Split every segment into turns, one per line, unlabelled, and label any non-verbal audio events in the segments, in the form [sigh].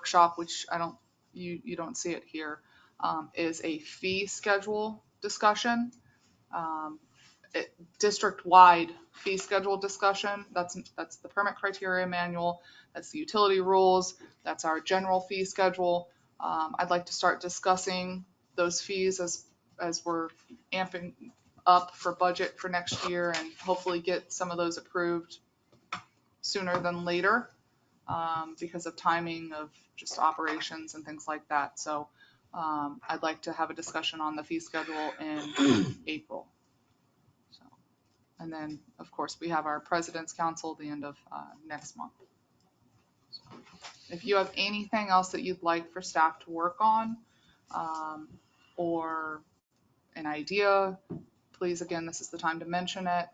workshop, which I don't, you, you don't see it here, um, is a fee schedule discussion. Um, it- District-wide fee schedule discussion, that's, that's the permit criteria manual, that's the utility rules, that's our general fee schedule. Um, I'd like to start discussing those fees as, as we're amping up for budget for next year and hopefully get some of those approved sooner than later um, because of timing of just operations and things like that. So um, I'd like to have a discussion on the fee schedule in April. So, And then, of course, we have our President's Council the end of uh, next month. If you have anything else that you'd like for staff to work on um, or an idea, please, again, this is the time to mention it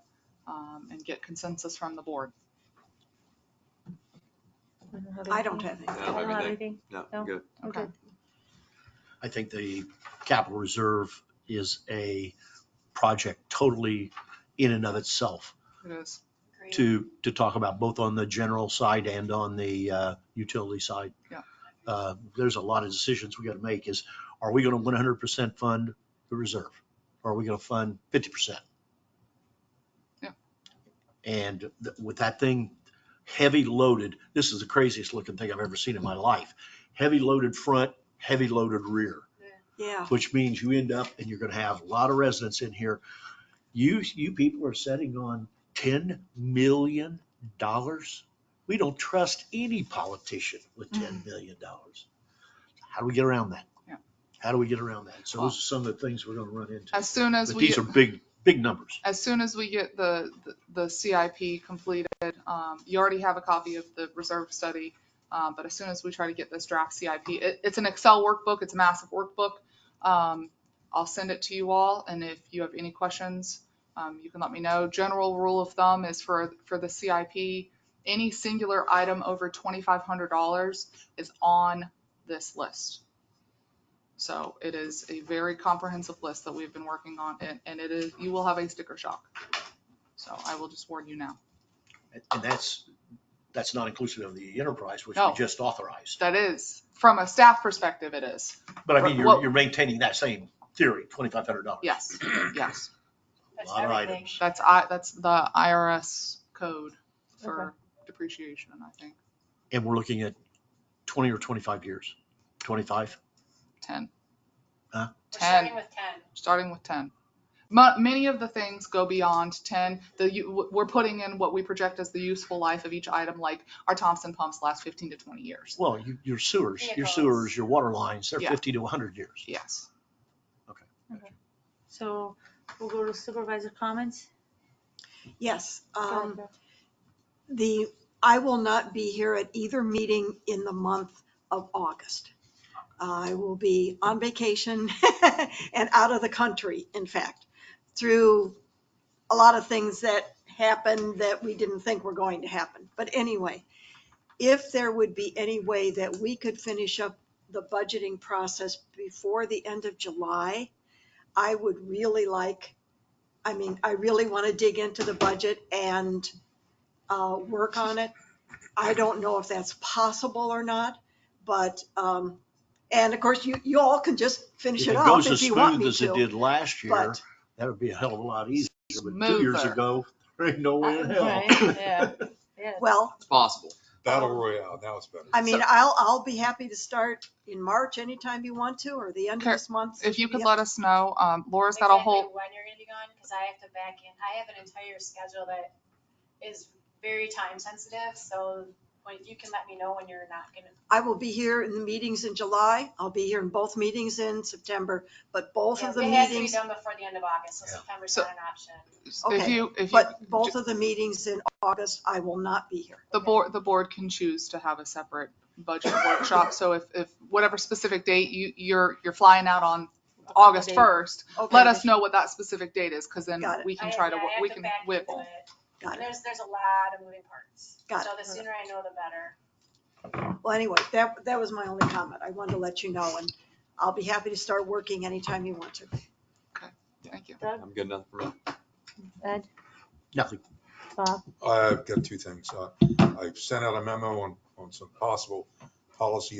um, and get consensus from the board.
I don't have any.
I don't have
anything.
No,
No.
good.
Okay.
I think the capital reserve is a project totally in and of itself
It is.
to, to talk about both on the general side and on the uh, utility side.
Yeah.
Uh, There's a lot of decisions we got to make is, are we going to 100% fund the reserve? Or Are we going to fund 50%?
Yeah.
And th- with that thing heavy loaded, this is the craziest looking thing I've ever seen in my life. Heavy loaded front, heavy loaded rear
Yeah,
which means you end up and you're gonna have a lot of residents in here. You, you people are setting on ten million dollars. We don't trust any politician with ten million dollars. How do we get around that?
Mm-hmm. Yeah.
How do we get around that? So
Well-
those are some of the things we're gonna run into.
As soon as
But
we,
these are big, big numbers.
as soon as we get the, the CIP completed, um, you already have a copy of the reserve study. Um, but as soon as we try to get this draft CIP, it, it's an Excel workbook, it's a massive workbook. Um, I'll send it to you all and if you have any questions, um, you can let me know. General rule of thumb is for, for the CIP, any singular item over twenty-five hundred dollars is on this list. So it is a very comprehensive list that we've been working on and, and it is, you will have a sticker shock. So I will just warn you now.
And that's, that's not inclusive of the enterprise, which we
No.
just authorized.
That is, from a staff perspective, it is.
But I mean,
Well-
you're, you're maintaining that same theory, twenty-five hundred dollars.
Yes, yes.
A lot of items.
That's I, that's the IRS code for depreciation, I think,
And we're looking at twenty or twenty-five years, twenty-five?
ten,
We're
10.
starting with ten.
starting with ten. Mu- many of the things go beyond ten. The, u- we're putting in what we project as the useful life of each item, like our Thompson pumps last fifteen to twenty years.
Well, you- your sewers, your
Vehicles.
sewers, your water lines, they're
Yeah.
50 to 100 years.
Yes.
So we'll go to supervisor comments.
yes.
Go ahead,
Um,
Beth.
the, I will not be here at either meeting in the month of August. I will be on vacation [laughs] and out of the country, in fact, through a lot of things that happened that we didn't think were going to happen. But anyway, if there would be any way that we could finish up the budgeting process before the end of July, I would really like, I mean, I really want to dig into the budget and uh, work on it. I don't know if that's possible or not, but, um, and of course, you, you all can just finish
If
it
it
up
goes
if
as
you want
smooth
me
as it
to.
did last year,
But
that would be a hell of a lot easier. But two years
Smoother.
ago, there ain't no
Uh,
way in
Right, yeah.
hell.
Yeah.
Well,
It's possible.
Battle Royale, now it's better.
I mean,
So-
I'll, I'll be happy to start in March anytime you want to, or the end of
Kurt,
this month.
If you could
Yep.
let us know, um, Laura's got a
Exactly
whole,
When you're gonna be gone, because I have to back in, I have an entire schedule that is very time sensitive, so when, you can let me know when you're not gonna.
I will be here in the meetings in July. I'll be here in both meetings in September, but both of the
It has to be
meetings,
done before the end of August, so
Yeah.
September's
So-
not an option.
if
Okay,
you, if you,
but both of the meetings in August, I will not be here.
the board, the board can choose to have a separate
[coughs]
budget workshop. So if, if whatever specific date you, you're, you're flying out on August
Date.
first,
Okay,
let us know what that specific date is, because then
Got it.
we can
I-
try to,
yeah, I have
we can
back into
whittle.
it.
Got it.
There's, there's a lot of moving parts.
Got
So the sooner I know, the better.
Well, anyway, that, that was my only comment. I wanted to let you know, and I'll be happy to start working anytime you want to.
Thank you.
I'm good enough for me.
Ed,
[laughs] Nothing.
Bob,
I've got two things. Uh, I've sent out a memo on, on some possible policy